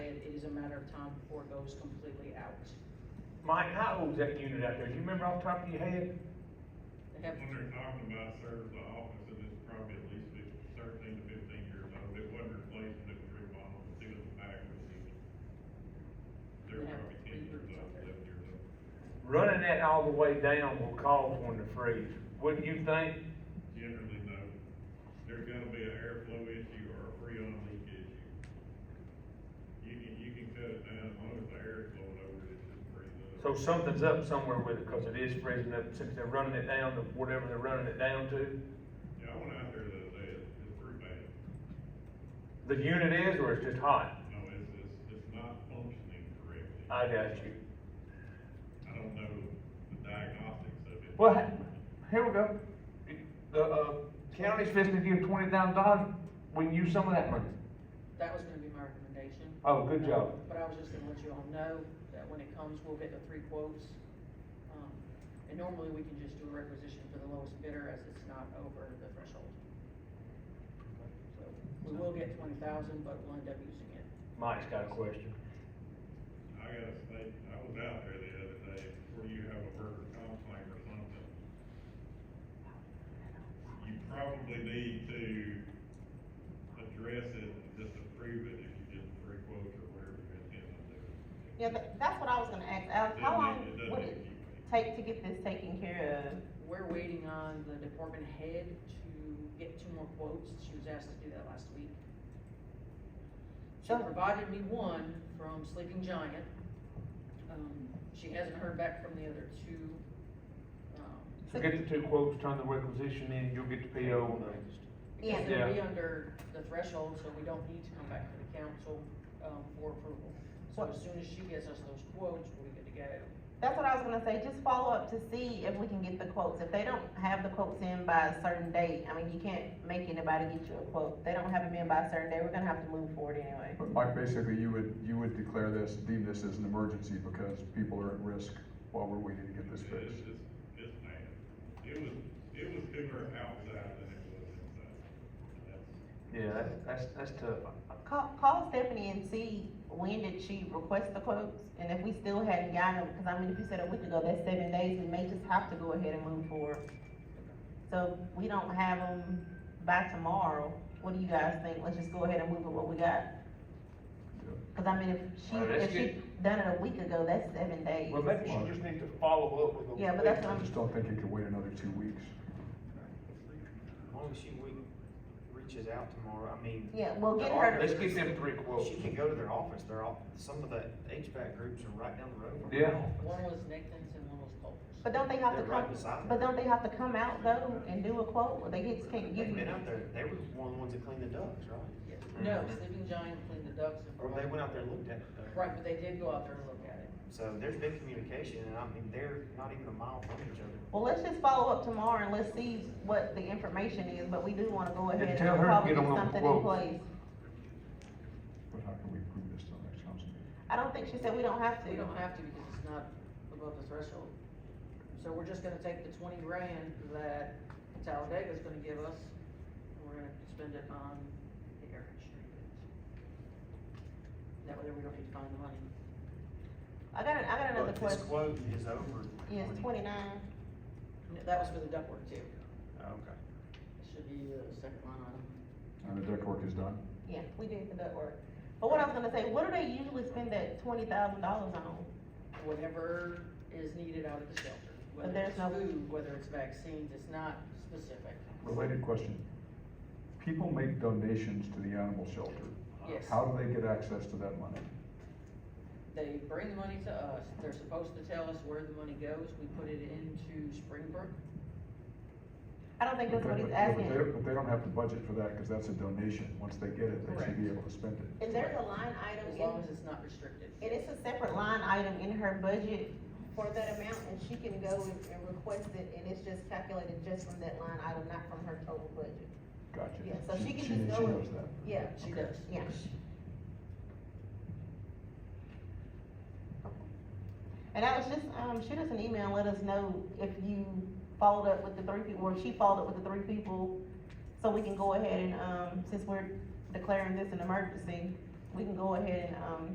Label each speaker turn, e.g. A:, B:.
A: of time before it goes completely out.
B: Mike, how old's that unit out there? Do you remember off the top of your head?
A: They have-
C: When they're talking about serves the office, and it's probably at least fif- thirteen to fifteen years old, it wasn't replaced, it was remodeled, the ceiling was back, was even. They're
A: Yeah.
C: probably ten years old, eleven years old.
B: Running that all the way down will cause one to freeze, wouldn't you think?
C: Generally, no, there's gonna be an airflow issue or a freon leak issue. You can, you can cut it down, as long as the air's flowing over it, it's just freezing up.
B: So something's up somewhere with it, cause it is freezing up, since they're running it down to whatever they're running it down to.
C: Yeah, I went out there the other day, it's, it's pretty bad,
B: The unit is, or it's just hot?
C: no, it's, it's, it's not functioning correctly.
B: I got you.
C: I don't know the diagnostics of it.
B: Well, here we go. The, uh, county's fixing to give twenty thousand dollars, we can use some of that money.
A: That was gonna be my recommendation.
B: Oh, good job.
A: But I was just gonna let you all know that when it comes, we'll get the three quotes. Um, And normally, we can just do a requisition for the lowest bidder as it's not over the threshold. So We will get twenty thousand, but we'll end up using it.
B: Mike's got a question.
C: I gotta say, I was out there the other day, before you have a burger complaint or something. You probably need to address it and just approve it if you get the three quotes or whatever you intend on doing.
D: Yeah, but that's what I was gonna ask, Alex, how
C: It
D: long
C: doesn't-
D: would
C: it
D: it
C: doesn't keep-
D: take to get this taken care of?
A: We're waiting on the department head to get two more quotes. She was asked to do that last week. She
D: So-
A: provided me one from Sleeping Giant. Um, She hasn't heard back from the other two. um,
B: So get the two quotes, turn the requisition in, you'll get the PO on those.
A: Because
B: Yeah.
A: it'll be under the threshold, so we don't need to come back to the council, um, for approval. So as soon as she gives us those quotes, we're good to go.
D: That's what I was gonna say, just follow up to see if we can get the quotes, if they don't have the quotes in by a certain date, I mean, you can't make anybody get you a quote, If they don't have them in by a certain date, we're gonna have to move forward anyway.
E: But Mike, basically, you would, you would declare this, deem this as an emergency because people are at risk while we're waiting to get this
C: It's,
E: fixed.
C: it's, it's bad. It was, it was cooler outside than it was inside. That's-
B: Yeah, that's- that's, that's tough.
D: Call, call Stephanie and see when did she request the quotes, and if we still hadn't gotten them, because I mean, if you said a week ago, that's seven days, we may just have to go ahead and move forward. So if we don't have them by tomorrow, what do you guys think? Let's just go ahead and move with what we got. Cause I mean, if she,
B: Well, that's
D: if she done it a week ago, that's seven days.
B: Well, maybe she just needs to follow up with a.
D: Yeah, but that's
E: I just don't think you can wait another two weeks.
F: As long as she we- reaches out tomorrow, I mean.
D: Yeah, well,
F: the
D: get her
F: ar-
D: to-
B: Let's get them three quotes.
F: She can go to their office, their off, some of the HVAC groups are right down the road from
B: Yeah.
F: their
A: One
F: office.
A: was Nathan's and one was Culver's.
D: But don't they have to
F: They're right
D: come,
F: beside
D: but
F: her.
D: don't they have to come out though and do a quote, or they get, can't give
F: They've been
D: you?
F: out there, they were one of the ones that cleaned the ducts, right?
A: Yes. No, Sleeping Giant cleaned the ducts and.
F: Or they went out there and looked at it. though.
A: Right, but they did go out there and look at it.
F: So there's been communication, and I mean, they're not even a mile from each other.
D: Well, let's just follow up tomorrow and let's see what the information is, but we do wanna go ahead and
B: tell her to
D: probably
B: get
D: get
B: on the
D: something in
B: quote.
D: place.
E: But how can we approve this till next council meeting?
D: I don't think she said we don't have to.
A: We don't have to because it's not above the threshold. So we're just gonna take the twenty grand that Talladega's gonna give us, and we're gonna spend it on the air conditioning. That way we don't need to find the money.
D: I got, an- I got another
F: But this
D: question.
F: quote is over.
D: Yes, twenty-nine.
A: That was for the ductwork too.
F: Oh, Okay.
A: It should be the second line
E: And
A: item.
E: the duct work is done.
D: Yeah, we did the duct work. But what I was gonna say, what do they usually spend that twenty thousand dollars on?
A: Whatever is needed out of the shelter, whether
D: there's
A: it's
D: no-
A: food, whether it's vaccines, it's not specific.
E: Related question. People make donations to the animal shelter.
A: Yes.
E: How do they get access to that money?
A: They bring the money to us, they're supposed to tell us where the money goes, we put it into Springbrook.
D: I don't think that's what
E: Okay,
D: he's
E: but- yeah, but
D: asking.
E: they don't- But they don't have to budget for that because that's a donation. Once they get it, they should be
A: Correct.
E: able to spend it.
D: Is there a line item
A: As
D: in,
A: long as it's not restricted.
D: and it's a separate line item in her budget for that amount, and she can go and, and request it, and it's just calculated just from that line item, not from her total budget.
E: Gotcha.
D: Yeah, so she can
E: She
D: just
E: she
D: go
E: knows
D: and,
E: that.
D: yeah,
A: She does.
D: yeah. And Alex, just, um, shoot us an email and let us know if you followed up with the three people, or if she followed up with the three people, so we can go ahead and, um, since we're declaring this an emergency, we can go ahead and, um,